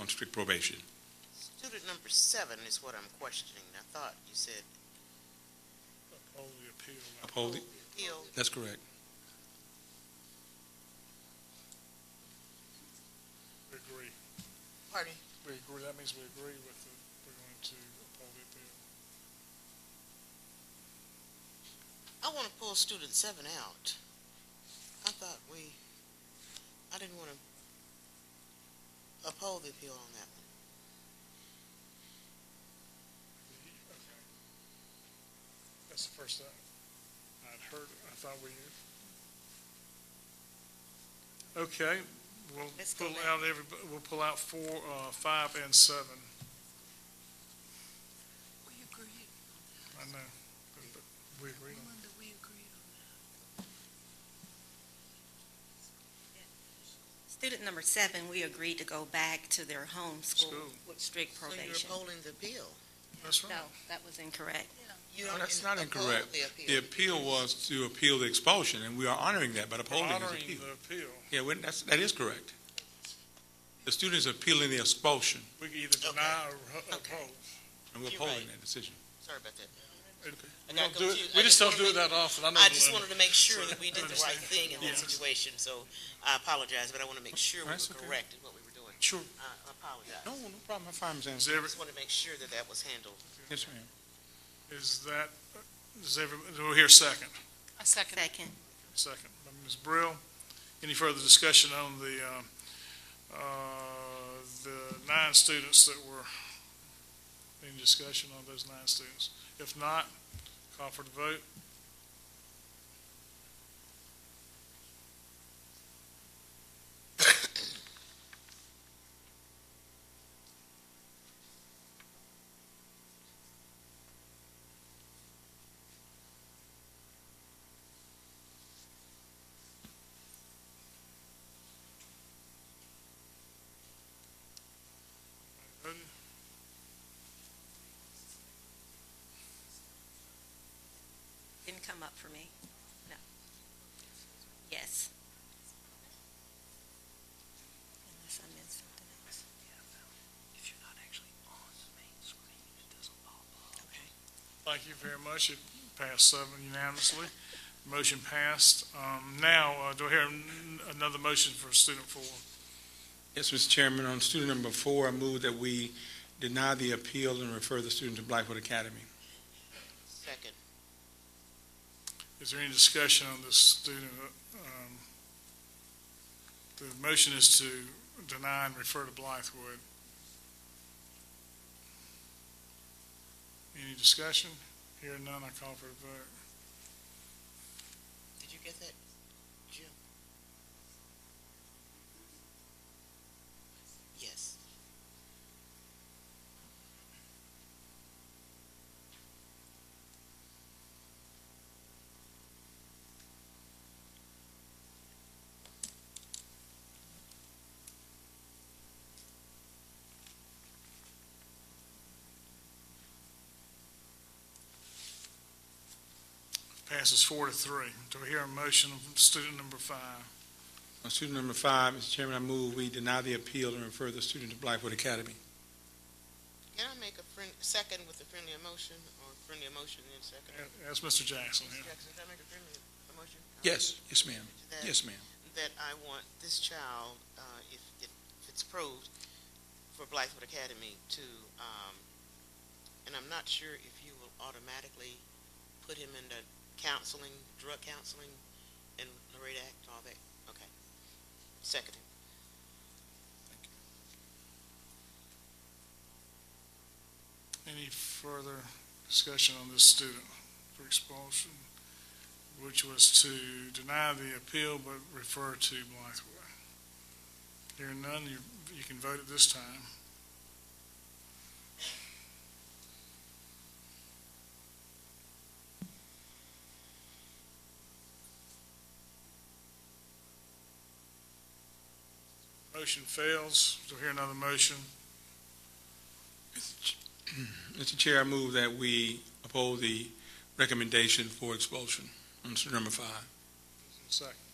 on strict probation. Student number seven is what I'm questioning. I thought you said Uphold the appeal. Uphold it? appeal. That's correct. We agree. Pardon? We agree, that means we agree with it. We're going to uphold the appeal. I want to pull student seven out. I thought we, I didn't want to uphold the appeal on that one. Okay. That's the first time I'd heard, I thought we knew. Okay, we'll Let's go pull back. out every, we'll pull out four, uh, five and seven. We agreed, I know, but, but we agree on Linda, we agreed on Student number seven, we agreed to go back to their home school School. with strict So probation. you're upholding the appeal. That's No, right. that was incorrect. You No, don't that's in- not uphold incorrect. The The appeal. appeal was to appeal the expulsion, and we are honoring that by upholding his Honoring appeal. the appeal. Yeah, well, that's, that is correct. The student is appealing the expulsion, We can either deny or hu- Okay. uphold. and we're You're upholding right. that decision. Sorry about that. We got don't do it- confused. We I just just don't do wanted it that often. I know I the just limit. wanted to make sure So, that we did the understand. right thing in that Yes. situation, so I apologize, but I want to make sure we That's were okay. correct in what we were doing. Sure. I I apologize. No, no problem. I find my Is sense. every, Just want to make sure that that was handled. Yes, ma'am. is that, is every, do we hear a second? that. A second. Second, Second by Ms. Brill. Any further discussion on the, um, uh, the nine students that were, any discussion on those nine students? If not, call for the vote. Voted. didn't come up for me. No. Yes. Unless I meant something else. If you're not actually on the main screen, it doesn't pop up. Okay. Thank you very much. It passed seven unanimously. Motion passed. Um, now, uh, do I hear n- another motion for student four? Yes, Mr. Chairman, on student number four, I move that we deny the appeal and refer the student to Blackwood Academy. Second. Is there any discussion on this student? um, The motion is to deny and refer to Blythewood. Any discussion? Hearing none, I call for the vote. Did you get that? Jim? Yes. Passes four to three. Do we hear a motion of student number five? On student number five, Mr. Chairman, I move we deny the appeal and refer the student to Blackwood Academy. Can I make a friend, second with a friendly emotion, or friendly emotion and second? A- Ask Mr. Jackson Mr. here. Jackson, can I make a friendly emotion? Yes, yes, ma'am. That- Yes, ma'am. That I want this child, uh, if, if if it's proved, for Blythewood Academy to, um, and I'm not sure if you will automatically put him into counseling, drug counseling, and Loretta Act, all that, okay. Second. Any further discussion on this student for expulsion, which was to deny the appeal but refer to Blythewood? Hearing none, you, you can vote at this time. Motion fails. Do I hear another motion? Mr. Chair, I move that we uphold the recommendation for expulsion on student number five. Second.